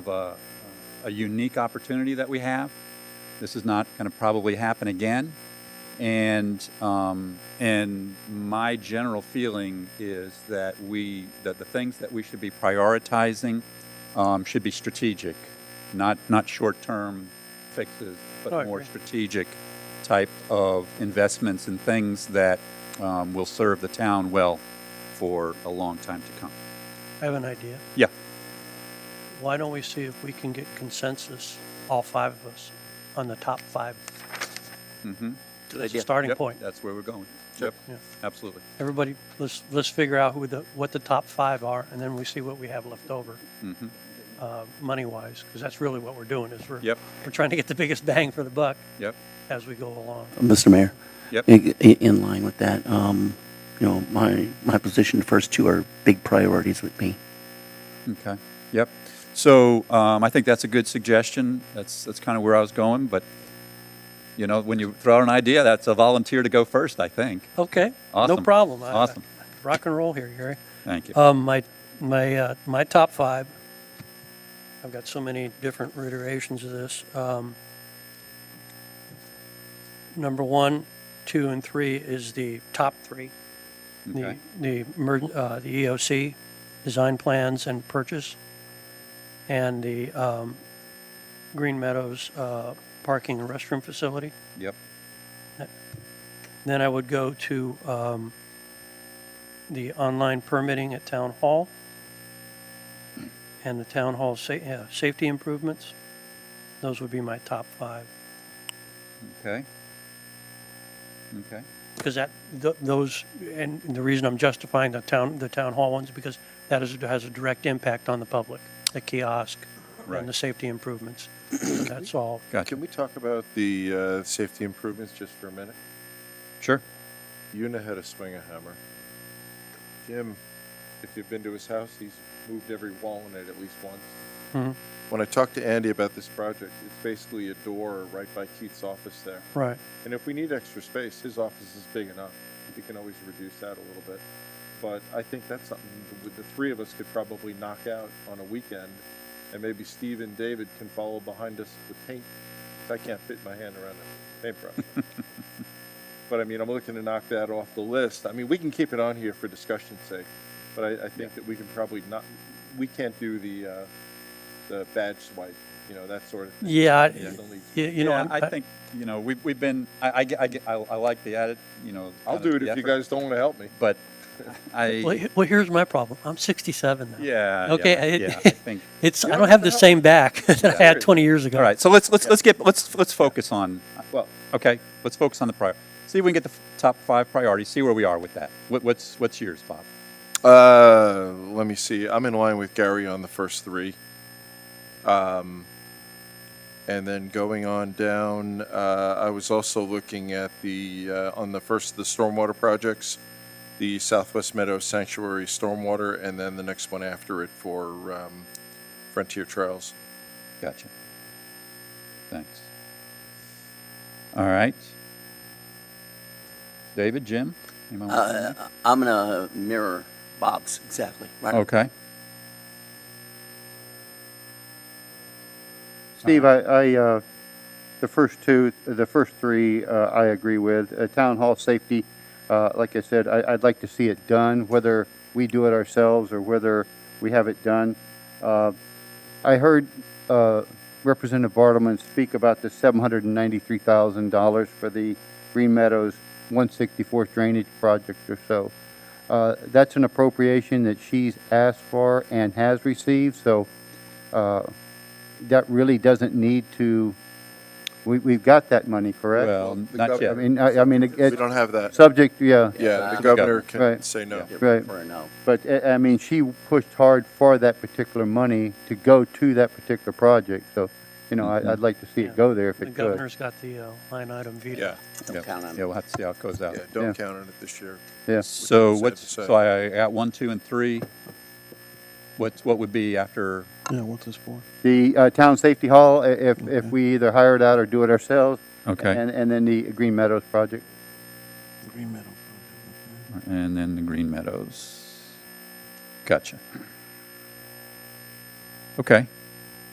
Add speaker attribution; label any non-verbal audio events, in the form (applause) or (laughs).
Speaker 1: of a, a unique opportunity that we have. This is not going to probably happen again. And, um, and my general feeling is that we, that the things that we should be prioritizing um, should be strategic, not, not short-term fixes,
Speaker 2: Oh, I
Speaker 1: but more
Speaker 2: agree.
Speaker 1: strategic type of investments and things that um, will serve the town well for a long time to come.
Speaker 2: I have an idea.
Speaker 1: Yeah.
Speaker 2: Why don't we see if we can get consensus, all five of us, on the top five?
Speaker 1: Mm-hmm.
Speaker 3: Good
Speaker 2: That's a
Speaker 3: idea.
Speaker 2: starting
Speaker 1: Yep,
Speaker 2: point.
Speaker 1: That's where we're going. Yep,
Speaker 2: Yeah.
Speaker 1: absolutely.
Speaker 2: Everybody, let's, let's figure out who the, what the top five are, and then we see what we have left over,
Speaker 1: Mhm.
Speaker 2: uh, money-wise, because that's really what we're doing, is we're,
Speaker 1: Yep.
Speaker 2: we're trying to get the biggest bang for the buck
Speaker 1: Yep,
Speaker 2: as we go along.
Speaker 3: Mr. Mayor,
Speaker 1: yep.
Speaker 3: i- i- in line with that, um, you know, my, my position, the first two are big priorities with me.
Speaker 1: Okay, yep. So um, I think that's a good suggestion. That's, that's kind of where I was going, but, you know, when you throw out an idea, that's a volunteer to go first, I think.
Speaker 2: Okay, no
Speaker 1: Awesome.
Speaker 2: problem. I-
Speaker 1: Awesome.
Speaker 2: Rock and roll here, Gary.
Speaker 1: Thank you.
Speaker 2: Um, my, my, uh, my top five, I've got so many different reiterations of this. Um, number one, two, and three is the top three. The,
Speaker 1: Okay.
Speaker 2: the, emer- uh, the EOC, design plans and purchase, and the, um, Green Meadows, uh, parking and restroom facility.
Speaker 1: Yep,
Speaker 2: Then I would go to um, the online permitting at Town Hall and the Town Hall sa- yeah, safety improvements. Those would be my top five.
Speaker 1: okay. Okay,
Speaker 2: Because that, th- those, and the reason I'm justifying the town, the Town Hall ones, because that is, has a direct impact on the public, the kiosk and the
Speaker 1: right.
Speaker 2: safety improvements. So That's all.
Speaker 1: Gotcha.
Speaker 4: Can we talk about the uh, safety improvements just for a minute?
Speaker 1: Sure.
Speaker 4: You know how to swing a hammer. Jim, if you've been to his house, he's moved every wall in it at least once.
Speaker 2: Mhm.
Speaker 4: When I talked to Andy about this project, it's basically a door right by Keith's office there.
Speaker 2: Right.
Speaker 4: And if we need extra space, his office is big enough. You can always reduce that a little bit. But I think that's something that the three of us could probably knock out on a weekend. And maybe Steve and David can follow behind us with paint. 'cause I can't fit my hand around a paintbrush. but I mean, I'm looking to knock that off the list. I mean, we can keep it on here for discussion's sake. But I, I think that we can probably not, we can't do the, uh, the badge swipe, you know, that sort of thing.
Speaker 2: Yeah, I-
Speaker 4: That's the least.
Speaker 2: you you know.
Speaker 1: Yeah,
Speaker 2: I'm-
Speaker 1: I think, you know, we've, we've been, I, I, get- I, get- I I like the added, you know.
Speaker 4: I'll
Speaker 1: kind of
Speaker 4: do it
Speaker 1: the
Speaker 4: if you
Speaker 1: effort,
Speaker 4: guys don't want to help me.
Speaker 2: (laughs)
Speaker 1: But
Speaker 2: Well,
Speaker 1: I,
Speaker 2: he- well, here's my problem. I'm 67 now.
Speaker 1: yeah. yeah,
Speaker 2: Okay, I-
Speaker 1: Yeah,
Speaker 2: (laughs)
Speaker 1: I think.
Speaker 2: It's, I
Speaker 4: Yeah,
Speaker 2: don't have the
Speaker 4: that's
Speaker 2: same back (laughs) that I had
Speaker 4: Yeah.
Speaker 2: 20 years ago.
Speaker 1: All right, so let's, let's, let's get, let's, let's focus on,
Speaker 4: Well,
Speaker 1: okay, let's focus on the prior, see if we can get the f- top five priorities, see where we are with that. What, what's, what's yours, Bob?
Speaker 4: Uh, let me see. I'm in line with Gary on the first three. Um, and then going on down, uh, I was also looking at the uh, on the first of the stormwater projects, the Southwest Meadows Sanctuary stormwater, and then the next one after it for um, Frontier Trails.
Speaker 1: Gotcha. Thanks. All right. David, Jim? anyone want to-
Speaker 3: Uh, I'm gonna mirror Bob's, exactly, right?
Speaker 1: Okay,
Speaker 5: Steve, I, I, uh, the first two, the first three, uh, I agree with. Uh, Town hall safety, uh, like I said, I, I'd like to see it done, whether we do it ourselves or whether we have it done. Uh, I heard, uh, Representative Bartleman speak about the seven hundred and ninety-three thousand dollars for the Green Meadows one sixty-fourth drainage project or so. Uh, that's an appropriation that she's asked for and has received, so, uh, that really doesn't need to, we, we've got that money, correct?
Speaker 1: well,
Speaker 4: the
Speaker 1: not
Speaker 4: gov-
Speaker 5: I
Speaker 1: yet.
Speaker 5: mean, I, I mean, it-
Speaker 4: we don't have that.
Speaker 5: subject, yeah,
Speaker 4: yeah,
Speaker 3: Yeah.
Speaker 4: the governor can
Speaker 5: Right.
Speaker 4: say no.
Speaker 3: Give
Speaker 5: Right.
Speaker 3: For a no.
Speaker 5: but, uh, I mean, she pushed hard for that particular money to go to that particular project, so, you know, I, I'd like to see
Speaker 2: Yeah.
Speaker 5: it go there if
Speaker 2: The
Speaker 5: it could.
Speaker 2: governor's got the uh, line item veto.
Speaker 4: Yeah,
Speaker 1: Yeah,
Speaker 3: Don't count on
Speaker 1: Yeah,
Speaker 3: it.
Speaker 1: we'll have to see how it goes out.
Speaker 4: yeah. Don't
Speaker 5: Yeah.
Speaker 4: count on it this year.
Speaker 5: Yeah,
Speaker 1: So
Speaker 4: Sad
Speaker 1: what's,
Speaker 4: to say.
Speaker 1: so I got one, two, and three. What's, what would be after,
Speaker 6: Yeah, what's this for?
Speaker 5: the, uh, town safety hall, i- if, if we either hire it out or do it ourselves.
Speaker 1: okay,
Speaker 5: And, and then the Green Meadows project.
Speaker 6: Green metal.
Speaker 1: and then the Green Meadows. Gotcha. Okay,